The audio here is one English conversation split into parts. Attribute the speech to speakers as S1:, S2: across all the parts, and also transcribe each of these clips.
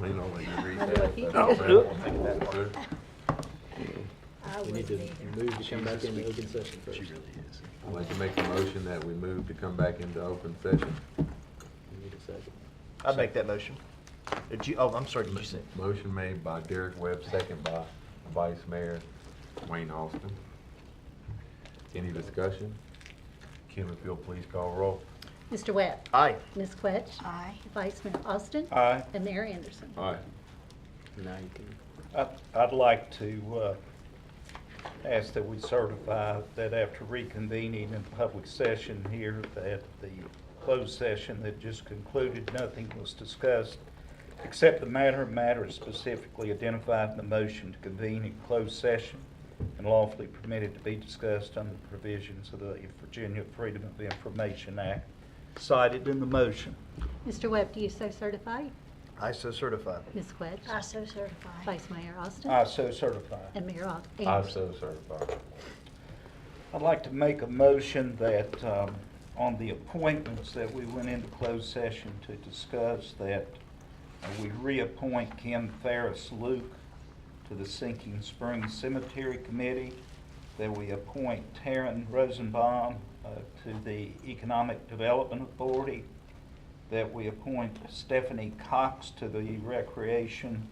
S1: Lean on it.
S2: I
S3: We need
S2: would
S3: to
S2: be.
S3: move to come back into open session first.
S1: I'd like to make a motion that we move to come back into open session.
S3: We need a second.
S4: I'd make that motion. Did you, oh, I'm sorry, did you say?
S1: Motion made by Derek Webb, second by Vice Mayor Wayne Austin. Any discussion? Kim, if you'll please call roll.
S2: Mr. Webb?
S4: Aye.
S2: Ms. Quetch?
S5: Aye.
S2: Vice Mayor Austin?
S6: Aye.
S2: And Mayor Anderson?
S1: All right.
S3: Nineteen.
S6: I- I'd like to uh, ask that we certify that after reconvening in public session here, that the closed session that just concluded, nothing was discussed except the matter of matters specifically identified in the motion to convene in closed session and lawfully permitted to be discussed under the provisions of the Virginia Freedom of Information Act cited in the motion.
S2: Mr. Webb, do you so certify?
S4: I so certify.
S2: Ms. Quetch?
S5: I so certify.
S2: Vice Mayor Austin?
S6: I so certify.
S2: And Mayor Al-
S1: I
S2: Anderson?
S1: so certify.
S6: I'd like to make a motion that, um, on the appointments that we went into closed session to discuss, that uh, we reappoint Kim Ferris Luke to the Sinking Spring Cemetery Committee, that we appoint Taryn Rosenbaum uh, to the Economic Development Authority, that we appoint Stephanie Cox to the Recreation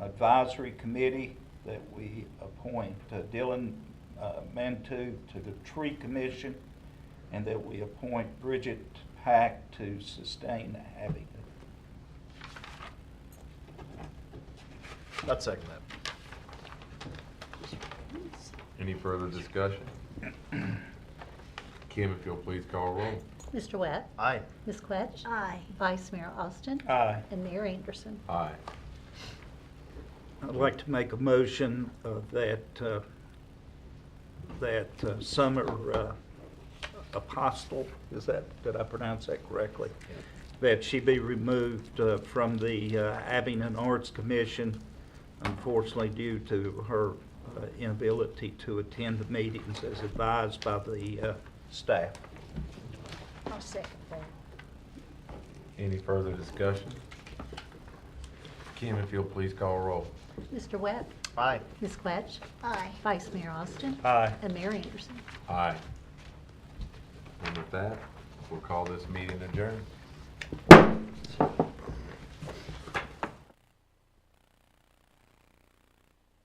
S6: Advisory Committee, that we appoint uh, Dylan uh, Mantoo to the Tree Commission, and that we appoint Bridget Pack to Sustain Avenue.
S4: I'd second that.
S1: Any further discussion? Kim, if you'll please call roll.
S2: Mr. Webb?
S4: Aye.
S2: Ms. Quetch?
S5: Aye.
S2: Vice Mayor Austin?
S6: Aye.
S2: And Mayor Anderson?
S1: Aye.
S6: I'd like to make a motion uh, that, uh, that uh, Summer uh, Apostle, is that, did I pronounce that correctly? That she be removed uh, from the uh, Abington Arts Commission, unfortunately due to her uh, inability to attend the meetings as advised by the uh, staff.
S5: I'll second that.
S1: Any further discussion? Kim, if you'll please call roll.
S2: Mr. Webb?
S4: Aye.
S2: Ms. Quetch?
S5: Aye.
S2: Vice Mayor Austin?
S6: Aye.
S2: And Mayor Anderson?
S1: Aye. And with that, we'll call this meeting adjourned.